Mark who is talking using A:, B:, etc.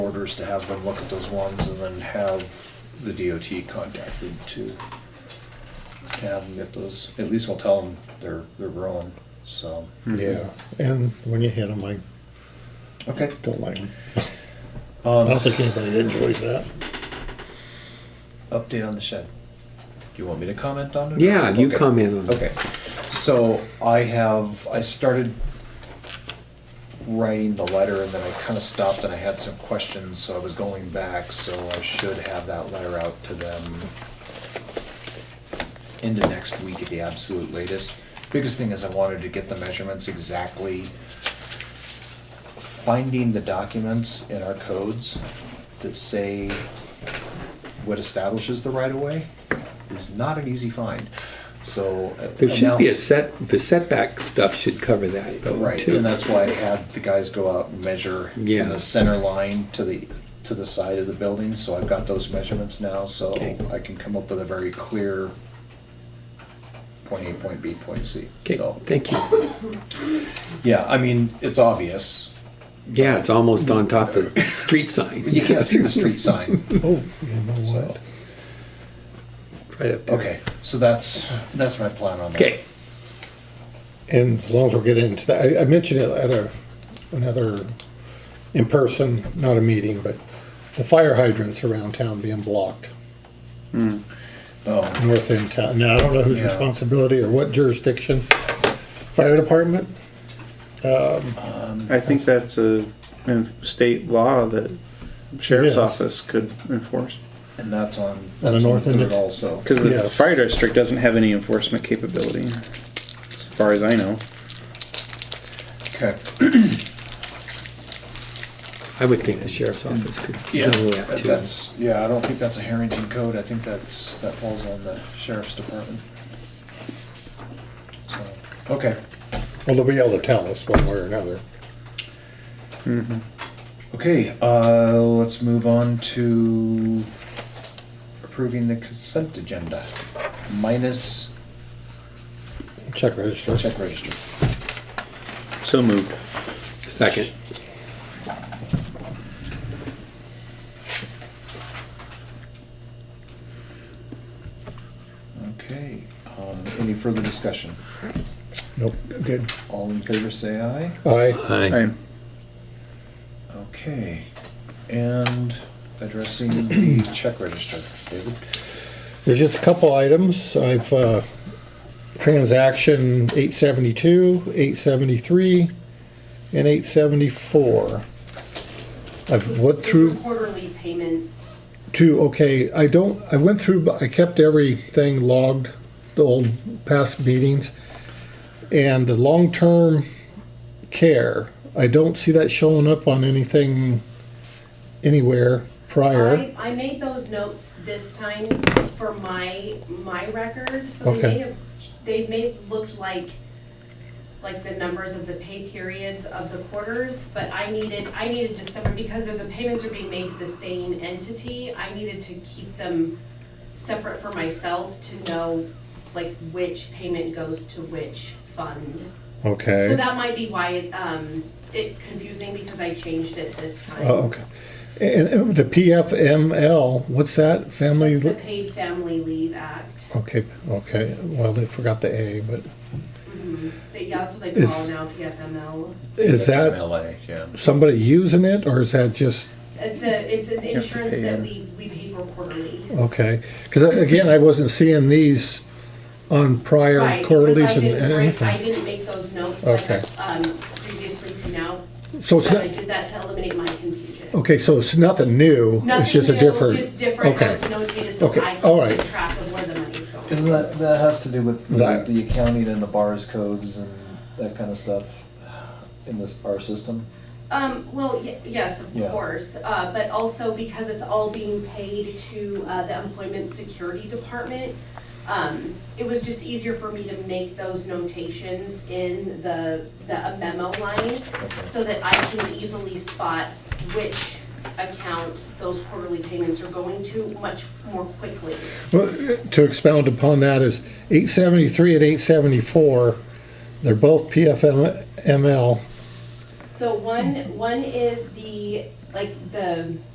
A: members to have them look at those ones and then have the DOT contacted to have them get those, at least we'll tell them they're, they're growing, so.
B: Yeah, and when you hit them, I
A: Okay.
B: don't like them. I
A: Um,
B: don't think anybody enjoys that.
A: update on the shed. Do you want me to comment on it?
C: Yeah, you
A: Okay.
C: comment on it.
A: Okay, so I have, I started writing the letter and then I kind of stopped and I had some questions, so I was going back, so I should have that letter out to them into next week at the absolute latest. Biggest thing is I wanted to get the measurements exactly, finding the documents in our codes that say what establishes the right-of-way is not an easy find, so. uh,
C: There should be
A: now-
C: a set, the setback stuff should cover that though,
A: Right,
C: too.
A: and that's why I had the guys go out and measure from
C: Yeah.
A: the center line to the, to the side of the building, so I've got those measurements now, so
C: Okay.
A: I can come up with a very clear point A, point B, point C,
C: Okay,
A: so,
C: thank you.
A: yeah, I mean, it's obvious.
C: Yeah, it's almost on top of the street sign.
A: You can't see the street sign,
B: Oh, you know
A: so,
B: what?
C: Right up there.
A: okay, so that's, that's my plan on that.
C: Okay,
B: And as long as we're getting into that, I, I mentioned it at a, another, in person, not a meeting, but the fire hydrants around town being blocked,
A: Hmm. Oh,
B: north end town. Now, I don't know whose
A: Yeah.
B: responsibility or what jurisdiction. Fire department?
D: I think that's a in- state law that sheriff's
B: Yes.
D: office could enforce.
A: and that's on,
B: the
A: that's on
B: north end
A: third
B: of-
A: also,
D: Because the
B: Yes.
D: fire district doesn't have any enforcement capability, as far as I know.
A: okay,
C: I would think the sheriff's office could
A: yeah,
C: handle that too.
A: that's, yeah, I don't think that's a Harrington code, I think that's, that falls on the sheriff's department. So, Okay.
B: Well, they'll be able to tell us one way or another.
A: Okay, uh, let's move on to approving the consent agenda minus
B: Check register.
A: check register.
D: So moved.
C: Second,
A: Okay, um, any further discussion?
B: Nope, good.
A: All in favor, say aye.
B: Aye.
C: aye.
D: I'm
A: Okay, and addressing the check register, David?
B: There's just a couple items. I've, uh, transaction eight seventy-two, eight seventy-three, and eight seventy-four. I've went
E: These
B: through
E: are Quarterly payments,
B: to, okay, I don't, I went through, but I kept everything logged, the old past meetings. And the long-term care, I don't see that showing up on anything anywhere prior.
E: I, I made those notes this time for my, my record, so they
B: Okay.
E: may have, they may have looked like, like the numbers of the pay periods of the quarters, but I needed, I needed December, because of the payments are being made to the same entity, I needed to keep them separate for myself to know, like, which payment goes to which fund.
B: Okay.
E: So that might be why it, um, it confusing, because I changed it this time.
B: Oh, okay. And and the PFML, what's that? Family?
E: It's the Paid Family Leave Act.
B: Okay, okay. Well, they forgot the A, but
E: But yeah, that's what they call
B: Is-
E: now PFML.
B: is
A: From
B: that
A: LA, yeah.
B: somebody using it or is that just,
E: It's a, it's an
D: have to
E: insurance
D: pay
E: that
D: in.
E: we, we pay for quarterly.
B: okay? Because again, I wasn't seeing these on
E: Right,
B: prior
E: because
B: quarterlies
E: I
B: and
E: didn't write- I
B: anything.
E: didn't make those notes like,
B: Okay. Oh,
E: um, previously to now,
B: So it's
E: but I
B: not,
E: did that to eliminate my confusion.
B: okay, so it's nothing new. It's
E: Nothing
B: just a
E: new,
B: different.
E: Just different, how
B: Okay.
E: it's notated, so
B: Okay,
E: I
B: all
E: can
B: right.
E: keep track of where the money's going.
A: Isn't that, that has to do with the
B: That.
A: the accounting and the bars codes and that kind of stuff in this, our system?
E: Um, well, y- yes, of
A: Yeah.
E: course, uh, but also because it's all being paid to, uh, the Employment Security Department, um, it was just easier for me to make those notations in the, the memo line
A: Okay.
E: so that I can easily spot which account those quarterly payments are going to much more quickly.
B: Well, To expound upon that is eight seventy-three and eight seventy-four, they're both PFML.
E: So one, one is the, like, the